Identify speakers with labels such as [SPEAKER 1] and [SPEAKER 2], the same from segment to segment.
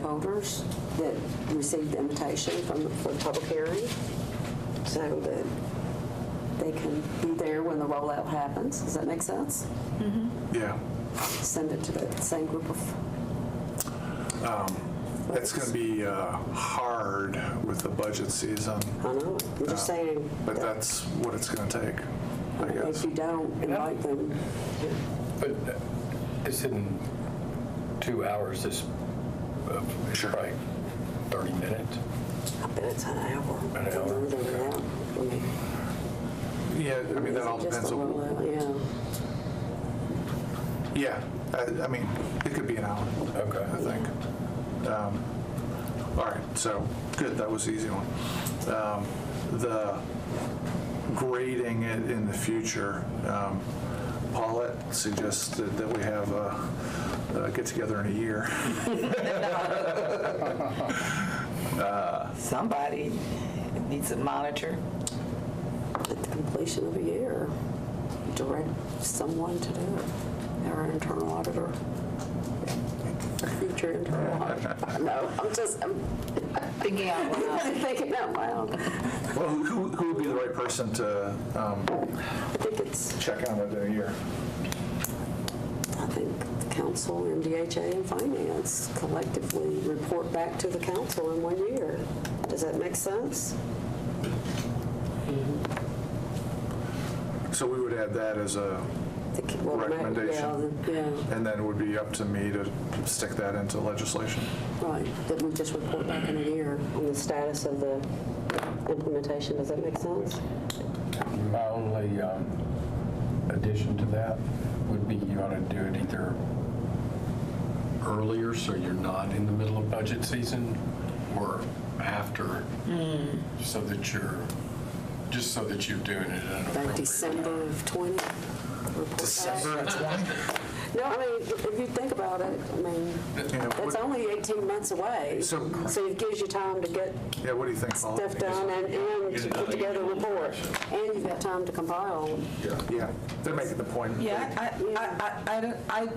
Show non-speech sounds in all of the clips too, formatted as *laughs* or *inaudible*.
[SPEAKER 1] stakeholders that received the invitation from, for the public hearing, so that they can be there when the rollout happens. Does that make sense?
[SPEAKER 2] Yeah,
[SPEAKER 1] Send it to the same group of,
[SPEAKER 2] it's going to be uh, hard with the budget season,
[SPEAKER 1] I don't know, I'm just saying,
[SPEAKER 2] Uh, but that's what it's going to take, I
[SPEAKER 1] if
[SPEAKER 2] guess.
[SPEAKER 1] you don't invite them,
[SPEAKER 3] But it's in two hours, this, uh, it's
[SPEAKER 2] Sure.
[SPEAKER 3] probably 30 minutes.
[SPEAKER 1] I bet it's an hour.
[SPEAKER 3] An hour,
[SPEAKER 1] Longer than an
[SPEAKER 3] okay.
[SPEAKER 1] hour. I mean,
[SPEAKER 2] Yeah, I mean, that all
[SPEAKER 1] is it just
[SPEAKER 2] depends
[SPEAKER 1] the
[SPEAKER 2] on,
[SPEAKER 1] rollout? Yeah.
[SPEAKER 2] yeah, I I mean, it could be an hour,
[SPEAKER 3] Okay.
[SPEAKER 2] I think. Um, All right, so, good, that was the easy one. Um, The grading it in the future, um, Paulette suggested that we have a a get-together in a year.
[SPEAKER 4] Somebody needs a monitor.
[SPEAKER 1] at the completion of a year, direct someone to do it, our internal auditor. Future internal auditor. No, I'm just, I'm
[SPEAKER 4] Thinking out *laughs* loud.
[SPEAKER 1] thinking out loud.
[SPEAKER 2] Well, who, who would be the right person to um,
[SPEAKER 1] I think it's,
[SPEAKER 2] check on it in a year?
[SPEAKER 1] I think the council and DHA and finance collectively report back to the council in one year. Does that make sense?
[SPEAKER 2] So we would add that as a,
[SPEAKER 1] The c- well, ma- yeah,
[SPEAKER 2] Recommendation.
[SPEAKER 1] the- Yeah,
[SPEAKER 2] and then it would be up to me to stick that into legislation.
[SPEAKER 1] right, that we just report back in a year on the status of the implementation. Does that make sense?
[SPEAKER 3] My only um, addition to that would be you ought to do it either earlier, so you're not in the middle of budget season, or after, so that you're, just so that you're doing it at an
[SPEAKER 1] By
[SPEAKER 3] appropriate
[SPEAKER 1] December of 20?
[SPEAKER 2] December 20?
[SPEAKER 1] No, I mean, if you think about it, I mean,
[SPEAKER 2] Yeah,
[SPEAKER 1] it's
[SPEAKER 2] what-
[SPEAKER 1] only 18 months away. So
[SPEAKER 2] So-
[SPEAKER 1] it gives you time to get
[SPEAKER 2] yeah, what do you think, Paul?
[SPEAKER 1] stuff done and and to put together a report. And you've got time to compile.
[SPEAKER 2] Yeah, they're making the point.
[SPEAKER 4] Yeah, I, I, I, I, don't- I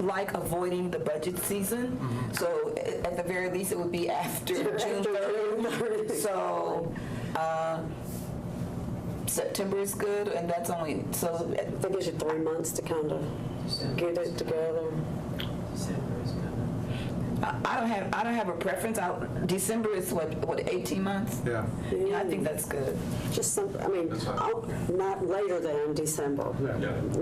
[SPEAKER 4] like avoiding the budget season. So a- at the very least, it would be *laughs* after June 30th. So, uh, September is good and that's only, so uh,
[SPEAKER 1] That gives you three months to kind of get it together.
[SPEAKER 4] I I don't have, I don't have a preference. I, December is what, what, 18 months?
[SPEAKER 2] Yeah,
[SPEAKER 4] Yeah, I think that's good.
[SPEAKER 1] Just some, I mean,
[SPEAKER 2] That's fine.
[SPEAKER 1] oh, not later than December.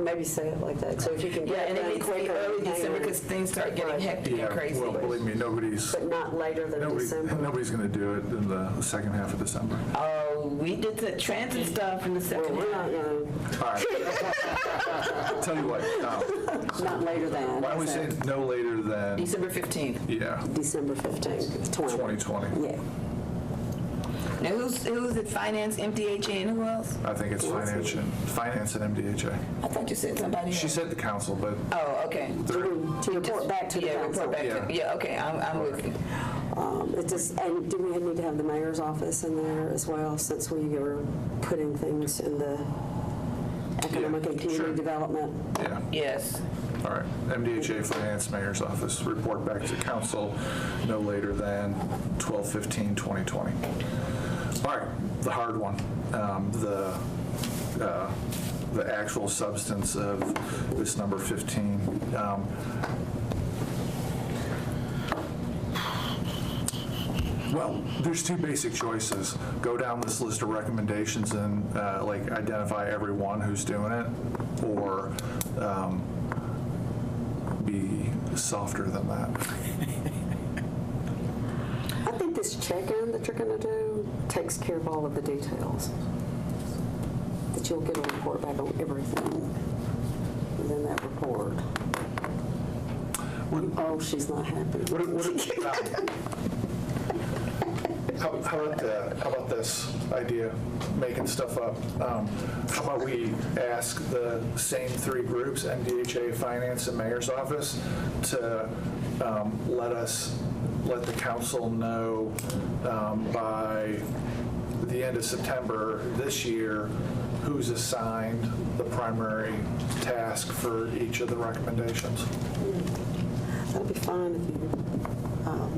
[SPEAKER 1] Maybe say it like that, so if you can
[SPEAKER 4] Yeah,
[SPEAKER 1] get it
[SPEAKER 4] and it
[SPEAKER 1] done
[SPEAKER 4] needs to be
[SPEAKER 1] quicker.
[SPEAKER 4] early December
[SPEAKER 1] hang on.
[SPEAKER 4] because things start getting hectic and
[SPEAKER 2] yeah,
[SPEAKER 4] crazy.
[SPEAKER 2] well, believe me, nobody's,
[SPEAKER 1] But not later than
[SPEAKER 2] nobody-
[SPEAKER 1] December.
[SPEAKER 2] nobody's going to do it in the second half of December.
[SPEAKER 4] Oh, we did the transit stuff in the
[SPEAKER 1] Well,
[SPEAKER 4] second
[SPEAKER 1] we're not,
[SPEAKER 4] half.
[SPEAKER 1] no,
[SPEAKER 2] All right. Tell you what,
[SPEAKER 1] *laughs*
[SPEAKER 2] um,
[SPEAKER 1] not later than.
[SPEAKER 2] why don't we
[SPEAKER 1] so
[SPEAKER 2] say no later than,
[SPEAKER 4] December 15th.
[SPEAKER 2] yeah,
[SPEAKER 1] December 15th, 20.
[SPEAKER 2] 2020?
[SPEAKER 1] Yeah.
[SPEAKER 4] Now, who's, who's it, finance, MDHA, E, and who else?
[SPEAKER 2] I think it's finance and, finance and MDHA.
[SPEAKER 4] I thought you said somebody
[SPEAKER 2] She
[SPEAKER 4] else.
[SPEAKER 2] said the council, but
[SPEAKER 4] Oh, okay.
[SPEAKER 2] they're-
[SPEAKER 1] To report back to the
[SPEAKER 4] Yeah,
[SPEAKER 1] council.
[SPEAKER 4] report back to, yeah, okay, I'm, I'm with you.
[SPEAKER 1] Um, It just, and do we need to have the mayor's office in there as well, since we are putting things in the economic and
[SPEAKER 2] Yeah, sure.
[SPEAKER 1] community development?
[SPEAKER 2] yeah.
[SPEAKER 4] Yes.
[SPEAKER 2] All right, MDHA Finance Mayor's Office, report back to council no later than 12/15/2020. All right, the hard one, um, the, uh, the actual substance of this number 15. Um, Well, there's two basic choices. Go down this list of recommendations and uh, like identify everyone who's doing it, or um, be softer than that.
[SPEAKER 1] I think this check-in that you're going to do takes care of all of the details. That you'll get a report back on everything within that report. Oh, she's not happy.
[SPEAKER 2] What, what, *laughs* um, how, how about the, how about this idea, making stuff up? Um, how about we ask the same three groups, MDHA, Finance, and Mayor's Office, to um, let us, let the council know um, by the end of September this year who's assigned the primary task for each of the recommendations?
[SPEAKER 1] That'd be fine if you, um,